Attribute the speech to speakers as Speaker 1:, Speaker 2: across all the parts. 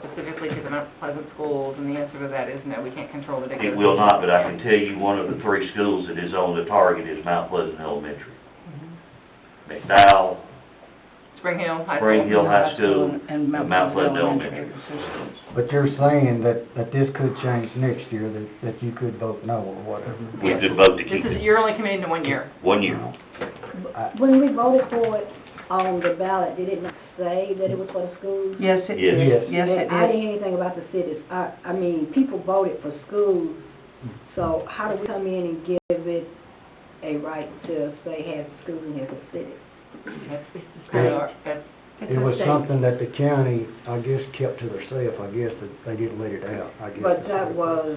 Speaker 1: specifically to the Mount Pleasant schools, and the answer to that is no, we can't control the dictator.
Speaker 2: It will not, but I can tell you one of the three schools that is on the target is Mount Pleasant Elementary. McDowell,
Speaker 1: Spring Hill High School.
Speaker 2: Spring Hill High School,
Speaker 3: and
Speaker 2: and Mount Pleasant Elementary.
Speaker 4: But you're saying that, that this could change next year, that, that you could vote no or whatever.
Speaker 2: We could vote to
Speaker 1: This
Speaker 2: keep
Speaker 1: is,
Speaker 2: it
Speaker 1: you're only committing to one year.
Speaker 2: one year.
Speaker 3: Uh,
Speaker 5: When we voted for it on the ballot, did it not say that it was for the schools?
Speaker 3: Yes, it
Speaker 2: Yes.
Speaker 3: did,
Speaker 4: Yes.
Speaker 3: yes, it
Speaker 5: I
Speaker 3: did.
Speaker 5: didn't hear anything about the cities. I, I mean, people voted for schools, so how do we come in and give it a right to say has schools and has a city?
Speaker 1: That's, that's,
Speaker 4: It was something that the county, I guess, kept to themselves, I guess, that they didn't let it out, I guess.
Speaker 5: But that was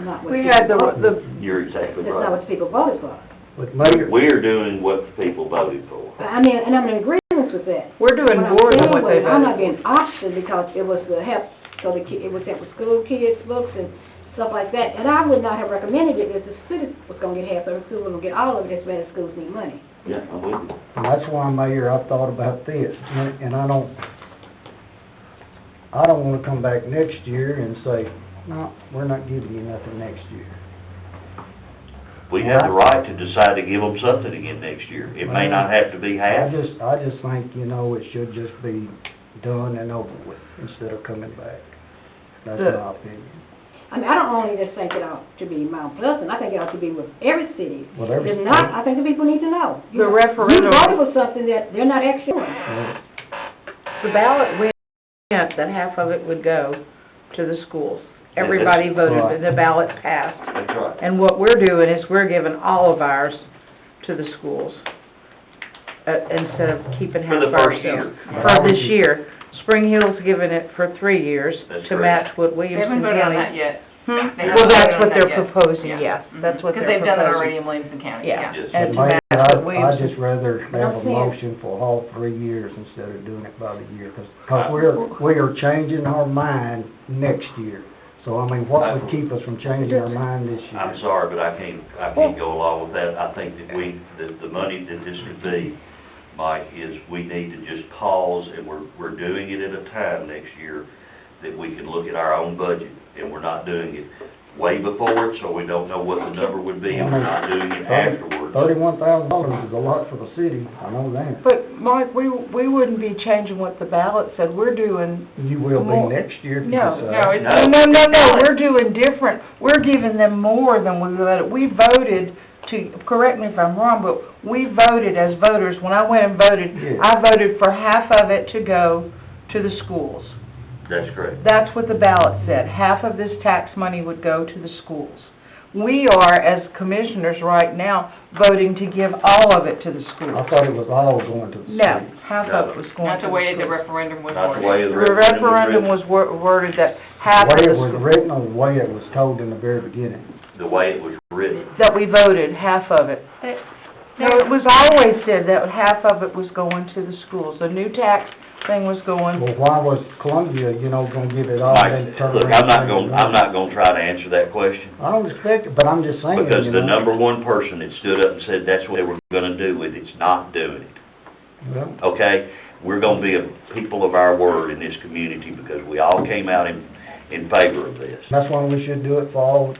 Speaker 5: not what.
Speaker 3: We had the,
Speaker 5: people voted-
Speaker 3: the,
Speaker 2: You're exactly
Speaker 5: That's
Speaker 2: right.
Speaker 5: not what people voted for.
Speaker 4: But later,
Speaker 2: We're doing what the people voted for.
Speaker 5: I mean, and I'm in agreement with that.
Speaker 3: we're doing more than what they
Speaker 5: I'm saying was, I'm not
Speaker 3: voted
Speaker 5: being option because it was to help, so the ki, it was help with school kids, books and stuff like that. And I would not have recommended it if the city was gonna get half of it, school was gonna get all of it, as bad as schools need money.
Speaker 2: Yeah, I'm with you.
Speaker 4: and that's why, Mayor, I thought about this, and and I don't, I don't wanna come back next year and say, no, we're not giving you nothing next year.
Speaker 2: We have the right to decide to give them something again next year. It may not have to be
Speaker 4: I
Speaker 2: half.
Speaker 4: just, I just think, you know, it should just be done and over with, instead of coming back. That's
Speaker 3: The-
Speaker 4: my opinion.
Speaker 5: I mean, I don't only just think it ought to be Mount Pleasant, I think it ought to be with every city.
Speaker 4: Well, every
Speaker 5: If not,
Speaker 4: city.
Speaker 5: I think the people need to know. You-
Speaker 3: The referendum-
Speaker 5: You voted for something that they're not actually doing.
Speaker 3: The ballot went up, that half of it would go to the schools. Everybody voted, the ballot passed.
Speaker 2: That's right.
Speaker 3: And what we're doing is we're giving all of ours to the schools, uh, instead of keeping
Speaker 2: For
Speaker 3: half
Speaker 2: the
Speaker 3: for
Speaker 2: first year.
Speaker 3: ourselves. For this year. Spring Hill's given it for three years
Speaker 2: That's
Speaker 3: to
Speaker 2: correct.
Speaker 3: match what
Speaker 1: they
Speaker 3: Williamson
Speaker 1: haven't voted on that
Speaker 3: County.
Speaker 1: yet.
Speaker 3: Hmm?
Speaker 1: They haven't
Speaker 3: Well, that's
Speaker 1: voted on
Speaker 3: what
Speaker 1: that
Speaker 3: they're
Speaker 1: yet.
Speaker 3: proposing,
Speaker 1: Yeah. Mm-hmm.
Speaker 3: yes, that's what
Speaker 1: Because
Speaker 3: they're proposing.
Speaker 1: they've done it already in Williamson County,
Speaker 3: Yeah,
Speaker 1: yeah.
Speaker 2: Yes.
Speaker 3: and to
Speaker 4: Mayor,
Speaker 3: match what
Speaker 4: I'd
Speaker 3: Williamson
Speaker 4: just rather have a
Speaker 5: That's it.
Speaker 4: motion for all three years instead of doing it by the year, because,
Speaker 2: Uh,
Speaker 4: we're, we are changing our mind next year. So, I mean, what would keep us from changing our mind this year?
Speaker 2: I'm sorry, but I can't, I can't go along with that. I think that we, that the money that this could be, Mike, is we need to just pause, and we're, we're doing it at a time next year that we can look at our own budget, and we're not doing it way before it, so we don't know what the number would be, and we're not doing it afterwards.
Speaker 4: Thirty-one thousand dollars is a lot for the city, I know that.
Speaker 6: But Mike, we, we wouldn't be changing what the ballot said, we're doing,
Speaker 4: You will
Speaker 6: More.
Speaker 4: be next year uh, if you
Speaker 6: No,
Speaker 4: decide.
Speaker 1: No, it's,
Speaker 6: no, no, no, no, we're doing different, we're giving them more than we voted, we voted to, correct me if I'm wrong, but we voted as voters, when I went and voted,
Speaker 4: Yeah.
Speaker 6: I voted for half of it to go to the schools.
Speaker 2: That's correct.
Speaker 6: That's what the ballot said, half of this tax money would go to the schools. We are, as commissioners right now, voting to give all of it to the
Speaker 4: I
Speaker 6: schools.
Speaker 4: thought it was all going to the city.
Speaker 6: No, half of it was going
Speaker 1: not
Speaker 6: to
Speaker 1: the
Speaker 6: the
Speaker 1: way the
Speaker 6: schools.
Speaker 1: referendum was
Speaker 2: Not the
Speaker 1: ordered.
Speaker 2: way the
Speaker 6: The
Speaker 2: referendum was written.
Speaker 6: referendum was wor- worded that half of
Speaker 4: The
Speaker 6: the
Speaker 4: way it was
Speaker 6: school,
Speaker 4: written or the way it was told in the very beginning.
Speaker 2: The way it was written.
Speaker 6: that we voted, half of it. No, it was always said that half of it was going to the schools. The new tax thing was going,
Speaker 4: Well, why was Columbia, you know, gonna give it all
Speaker 2: Mike,
Speaker 4: and turn around?
Speaker 2: look, I'm not
Speaker 4: and
Speaker 2: gonna,
Speaker 4: change
Speaker 2: I'm
Speaker 4: it?
Speaker 2: not gonna try to answer that question.
Speaker 4: I don't expect it, but I'm just saying, you
Speaker 2: Because the
Speaker 4: know.
Speaker 2: number one person that stood up and said that's what they were gonna do with it's not doing it,
Speaker 4: Well,
Speaker 2: okay? We're gonna be a people of our word in this community because we all came out in, in favor of this.
Speaker 4: That's why we should do it for all,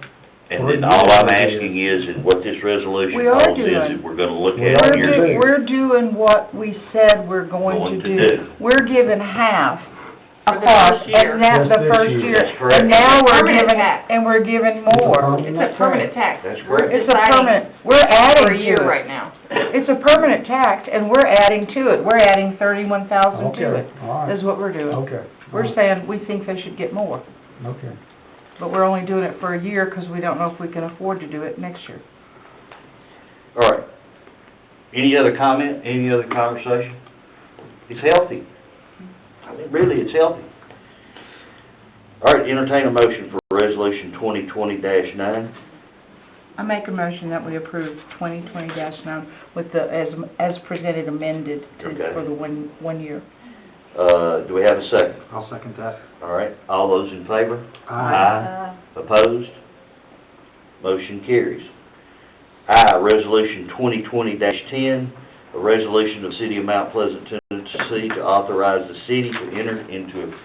Speaker 2: And then all I'm asking is, and what this resolution
Speaker 6: We are
Speaker 2: holds is,
Speaker 6: doing.
Speaker 2: that we're gonna look
Speaker 4: We
Speaker 2: at
Speaker 4: are
Speaker 6: we're
Speaker 2: it
Speaker 4: doing.
Speaker 2: here.
Speaker 6: do, we're doing what we said we're going to do. We're giving half
Speaker 1: For the first
Speaker 6: across,
Speaker 1: year.
Speaker 6: and that's
Speaker 4: Just
Speaker 6: the
Speaker 4: this
Speaker 6: first
Speaker 4: year.
Speaker 6: year.
Speaker 2: That's correct.
Speaker 6: And now we're
Speaker 1: Permanent
Speaker 6: giving,
Speaker 1: tax.
Speaker 6: and we're giving more.
Speaker 1: It's a permanent tax.
Speaker 2: That's
Speaker 1: We're
Speaker 2: correct.
Speaker 6: It's a
Speaker 1: deciding
Speaker 6: permanent, we're adding to it.
Speaker 1: For a year right now.
Speaker 6: It's a permanent tax, and we're adding to it, we're adding thirty-one thousand to it,
Speaker 4: Okay, all right,
Speaker 6: is what we're doing.
Speaker 4: okay.
Speaker 6: We're saying, we think they should get more,
Speaker 4: Okay.
Speaker 6: but we're only doing it for a year, because we don't know if we can afford to do it next year.
Speaker 2: All right. Any other comment, any other conversation? It's healthy. I mean, really, it's healthy. All right, entertain a motion for resolution twenty twenty nine.
Speaker 6: I make a motion that we approve twenty twenty nine with the, as, as presented amended
Speaker 2: Okay.
Speaker 6: to, for the one, one year.
Speaker 2: Uh, do we have a second?
Speaker 7: I'll second that.
Speaker 2: All right, all those in favor?
Speaker 5: Aye.
Speaker 2: Opposed? Motion carries. I, resolution twenty twenty ten, a resolution of City of Mount Pleasant, Tennessee, to authorize the city to enter into a